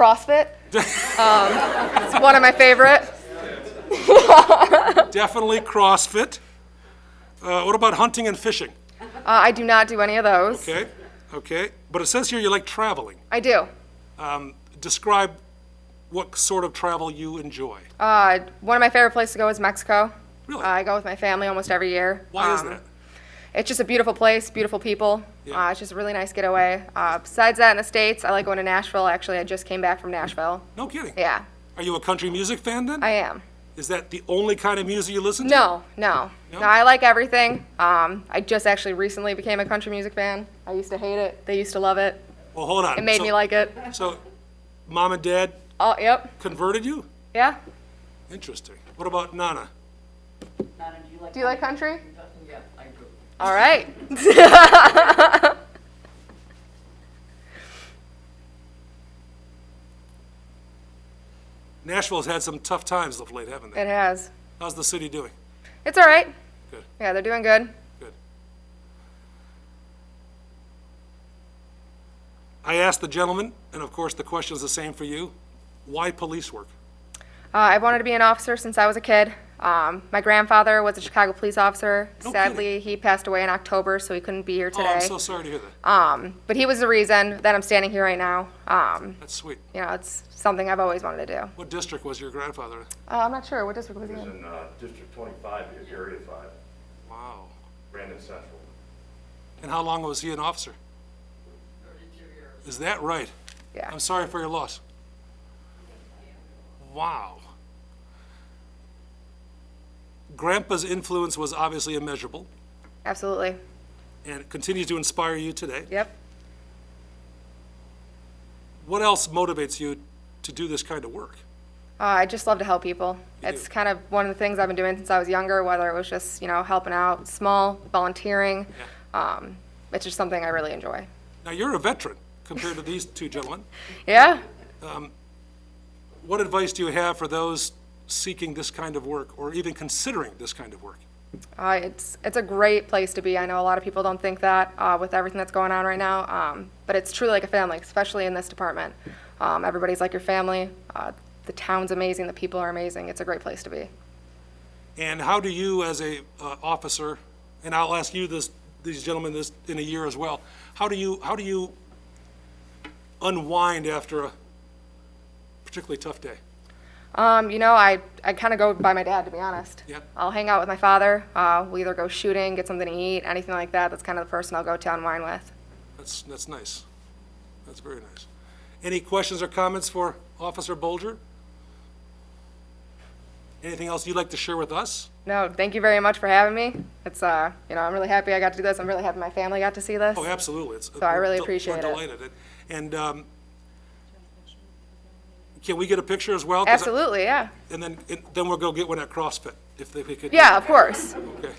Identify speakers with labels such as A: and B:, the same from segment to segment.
A: CrossFit. Um, it's one of my favorite. uh,
B: Definitely CrossFit. Uh, what about hunting and fishing?
A: Uh, I do not do any of those.
B: Okay, okay. But it says here you like traveling.
A: I do.
B: Um, describe what sort of travel you enjoy.
A: Uh, one of my favorite places to go is Mexico. Uh,
B: Really?
A: I go with my family almost every year.
B: Why is
A: Um,
B: that?
A: It's just a beautiful place, beautiful people.
B: Yeah.
A: Uh, it's just a really nice getaway. Uh, besides that, in the States, I like going to Nashville. Actually, I just came back from Nashville.
B: No kidding.
A: Yeah,
B: Are you a country music fan then?
A: I am.
B: Is that the only kind of music you listen to?
A: No, no.
B: No?
A: No, I like everything. Um, I just actually recently became a country music fan. I used to hate it. They used to love it.
B: Well, hold on.
A: It made
B: So-
A: me like it.
B: So, mom and dad
A: Oh, yep.
B: converted you?
A: Yeah.
B: Interesting. What about Nana?
C: Donna, do you like?
A: Do you like country?
C: Yeah, I do.
A: All right.
B: Nashville's had some tough times of late, haven't they?
A: It has.
B: How's the city doing?
A: It's all right.
B: Good.
A: Yeah, they're doing good.
B: Good. I asked the gentleman, and of course, the question's the same for you. Why police work?
A: Uh, I wanted to be an officer since I was a kid. Um, my grandfather was a Chicago police officer.
B: No
A: Sadly, he passed away in October, so he couldn't be here
B: Oh,
A: today.
B: I'm so sorry to hear that.
A: um, but he was the reason that I'm standing here right now. Um,
B: That's sweet.
A: you know, it's something I've always wanted to do.
B: What district was your grandfather? in?
A: Uh, I'm not sure. What district was he
D: It's
A: in?
D: in uh, District 25, Area 5,
B: Wow.
D: Brandon Central.
B: And how long was he an officer? Is that right?
A: Yeah.
B: I'm sorry for your loss. Wow. Grandpa's influence was obviously immeasurable
A: Absolutely.
B: and it continues to inspire you today.
A: Yep.
B: What else motivates you to do this kind of work?
A: Uh, I just love to help people. It's
B: do.
A: kind of one of the things I've been doing since I was younger, whether it was just, you know, helping out small, volunteering. Um, it's just something I really enjoy.
B: Now, you're a veteran compared to these two gentlemen.
A: Yeah.
B: What advice do you have for those seeking this kind of work or even considering this kind of work?
A: Uh, it's it's a great place to be. I know a lot of people don't think that uh, with everything that's going on right now, um, but it's truly like a family, especially in this department. Um, everybody's like your family. Uh, the town's amazing. The people are amazing. It's a great place to be.
B: And how do you, as a uh, officer, and I'll ask you this, these gentlemen, this in a year as well, how do you, how do you unwind after a particularly tough day?
A: Um, you know, I, I kind of go by my dad, to be honest.
B: Yep.
A: I'll hang out with my father. Uh, we'll either go shooting, get something to eat, anything like that. That's kind of the person I'll go to and wine with.
B: That's, that's nice. That's very nice. Any questions or comments for Officer Bolger? Anything else you'd like to share with us?
A: No, thank you very much for having me. It's, uh, you know, I'm really happy I got to do this. I'm really happy my family got to see this.
B: Oh, absolutely. So
A: I really appreciate it.
B: We're delighted. And um, can we get a picture as well? 'Cause I-
A: Absolutely, yeah.
B: And then, and then we'll go get one at CrossFit, if they if we could.
A: Yeah, of course.
B: Okay.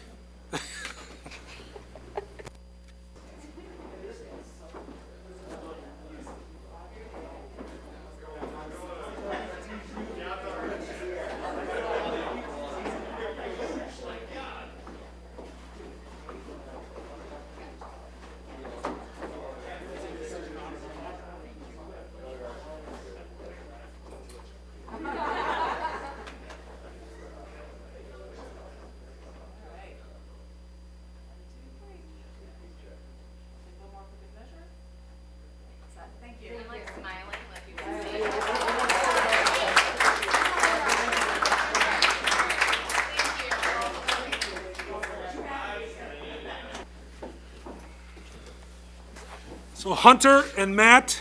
B: So Hunter and Matt,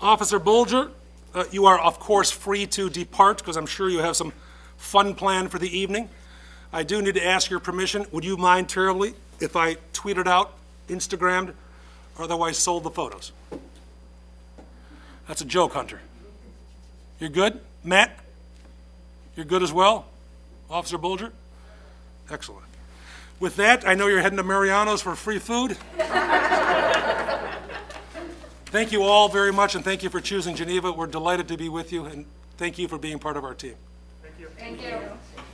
B: Officer Bolger, uh, you are of course free to depart because I'm sure you have some fun planned for the evening. I do need to ask your permission. Would you mind terribly if I tweeted out, Instagrammed, or otherwise sold the photos? That's a joke, Hunter. You're good? Matt? You're good as well? Officer Bolger? Excellent. With that, I know you're heading to Mariano's for free food. Thank you all very much, and thank you for choosing Geneva. We're delighted to be with you, and thank you for being part of our team.
A: Thank you.